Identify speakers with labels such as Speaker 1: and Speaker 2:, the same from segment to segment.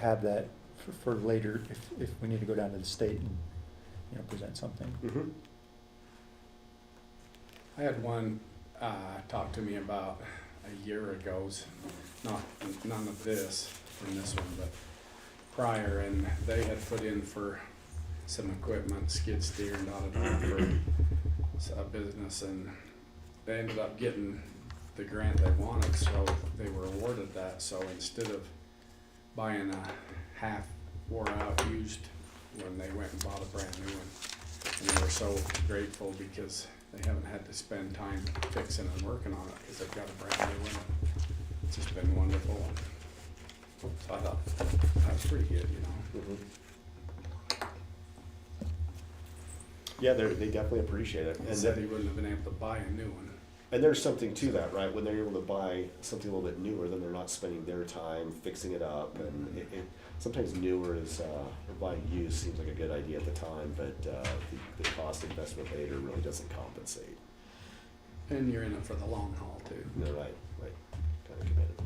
Speaker 1: have that for, for later if, if we need to go down to the state and, you know, present something.
Speaker 2: Mhm.
Speaker 3: I had one uh, talk to me about a year ago, s- not, none of this from this one, but prior, and they had put in for some equipment, skid steer and all of that for s- a business, and they ended up getting the grant they wanted, so they were awarded that, so instead of buying a half wore out used one, they went and bought a brand new one. And they were so grateful because they haven't had to spend time fixing and working on it because they've got a brand new one. It's just been wonderful. So I thought that was pretty good, you know.
Speaker 2: Mhm. Yeah, they they definitely appreciate it.
Speaker 3: He
Speaker 2: And,
Speaker 3: said
Speaker 2: that-
Speaker 3: he wouldn't have been able to buy a new one.
Speaker 2: and there's something to that, right? When they're able to buy something a little bit newer, then they're not spending their time fixing it up. And it, it, sometimes newer is, uh, or buying used seems like a good idea at the time, but uh, the, the cost investment later really doesn't compensate.
Speaker 3: And you're in it for the long haul too.
Speaker 2: No, right, right, kind of committed.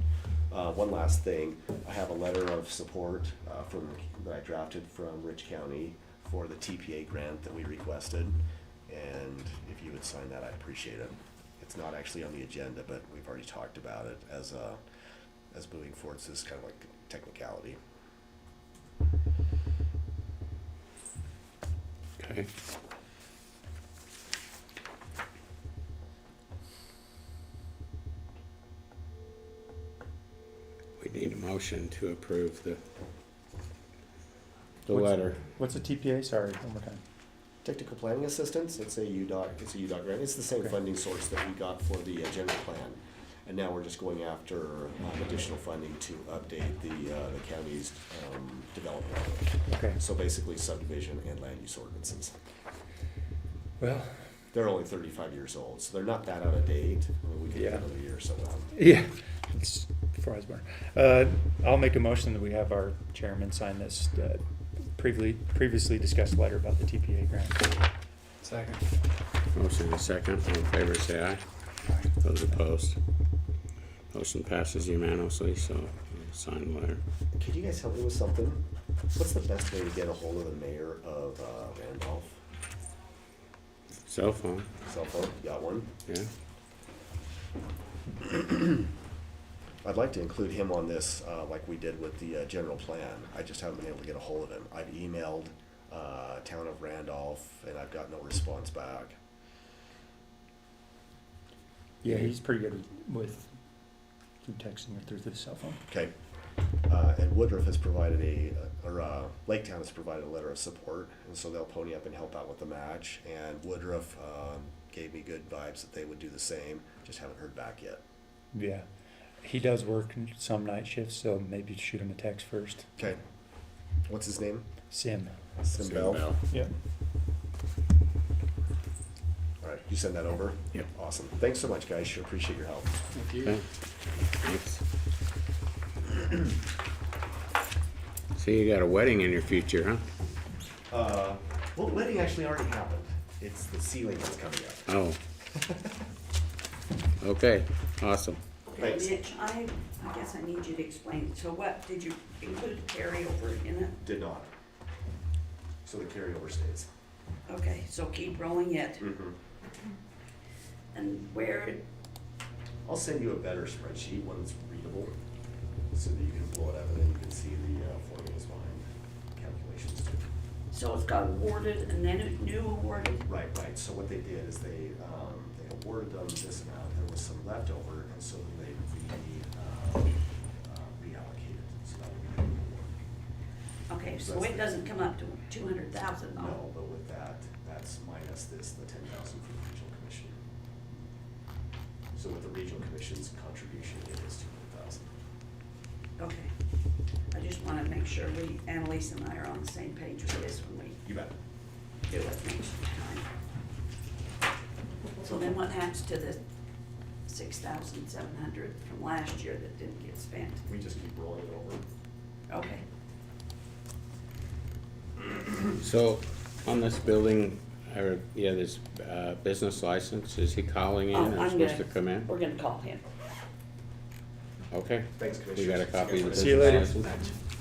Speaker 2: Uh, one last thing, I have a letter of support, uh, from, that I drafted from Rich County for the TPA grant that we requested. And if you would sign that, I'd appreciate it. It's not actually on the agenda, but we've already talked about it as, uh, as moving forward, so this is kind of like technicality.
Speaker 4: Okay. We need a motion to approve the, the
Speaker 1: What's-
Speaker 4: letter.
Speaker 1: What's a TPA? Sorry, one more time.
Speaker 2: Technical planning assistance, it's a UDOT, it's a UDOT grant, it's the same
Speaker 1: Okay.
Speaker 2: funding source that we got for the uh, general plan. And now we're just going after um, additional funding to update the, uh, the county's, um, development.
Speaker 1: Okay.
Speaker 2: So basically subdivision and land use ordinances.
Speaker 4: Well.
Speaker 2: They're only thirty-five years old, so they're not that out of date, I mean, we could get
Speaker 1: Yeah.
Speaker 2: another year or so out.
Speaker 1: Yeah, it's before I was born. Uh, I'll make a motion that we have our chairman sign this uh, previously, previously discussed letter about the TPA grant.
Speaker 3: Second.
Speaker 4: Motion and a second, all in favor say aye.
Speaker 3: Aye.
Speaker 4: Those opposed. Motion passes unanimously, so we'll sign the letter.
Speaker 2: Could you guys help me with something? What's the best way to get a hold of the mayor of, uh, Randolph?
Speaker 4: Cell phone,
Speaker 2: Cell phone, got one?
Speaker 4: yeah?
Speaker 2: I'd like to include him on this, uh, like we did with the, uh, general plan. I just haven't been able to get a hold of him. I've emailed, uh, town of Randolph, and I've got no response back.
Speaker 1: Yeah, he's pretty good with through texting or through the cell phone.
Speaker 2: Okay. Uh, and Woodruff has provided a, or, uh, Lake Town has provided a letter of support, and so they'll pony up and help out with the match. And Woodruff, um, gave me good vibes that they would do the same, just haven't heard back yet.
Speaker 1: Yeah, he does work some night shifts, so maybe shoot him a text first.
Speaker 2: Okay. What's his name?
Speaker 1: Sim.
Speaker 2: Simbel.
Speaker 1: Yep.
Speaker 2: All right, you send that over?
Speaker 4: Yep.
Speaker 2: Awesome. Thanks so much, guys. Sure appreciate your help.
Speaker 3: Thank
Speaker 4: Okay.
Speaker 3: you.
Speaker 4: Thanks. So you got a wedding in your future, huh?
Speaker 2: Uh, well, wedding actually already happened. It's the ceiling that's coming up.
Speaker 4: Oh. Okay, awesome.
Speaker 5: Okay,
Speaker 2: Thanks.
Speaker 5: Mitch, I, I guess I need you to explain, so what, did you include carryover in it?
Speaker 2: Did not. So the carryover stays.
Speaker 5: Okay, so keep rolling it,
Speaker 2: Mm-hmm.
Speaker 5: and where,
Speaker 2: I'll send you a better spreadsheet, one that's readable, so that you can pull it up and then you can see the uh, formulas behind calculations too.
Speaker 5: so it's got awarded and then it new awarded,
Speaker 2: Right, right. So what they did is they, um, they awarded them this amount, there was some leftover, and so they, we, um, uh, reallocated, so that would be the award.
Speaker 5: okay, so it doesn't come up to two hundred thousand
Speaker 2: No,
Speaker 5: though?
Speaker 2: but with that, that's minus this, the ten thousand for the regional commission. So with the regional commission's contribution, it is two hundred thousand.
Speaker 5: Okay, I just wanna make sure we, Annalise and I are on the same page with this when we
Speaker 2: You bet.
Speaker 5: do it next time. So then what happens to the six thousand seven hundred from last year that didn't get spent?
Speaker 2: We just keep rolling it over.
Speaker 5: Okay.
Speaker 4: So on this building, or, yeah, this, uh, business license, is he calling in
Speaker 5: Oh,
Speaker 4: or
Speaker 5: I'm
Speaker 4: supposed to
Speaker 5: gonna-
Speaker 4: come in?
Speaker 5: We're gonna call him.
Speaker 4: Okay.
Speaker 2: Thanks,
Speaker 4: We
Speaker 2: Commissioner.
Speaker 4: got a copy of the
Speaker 1: See you later.
Speaker 4: business license?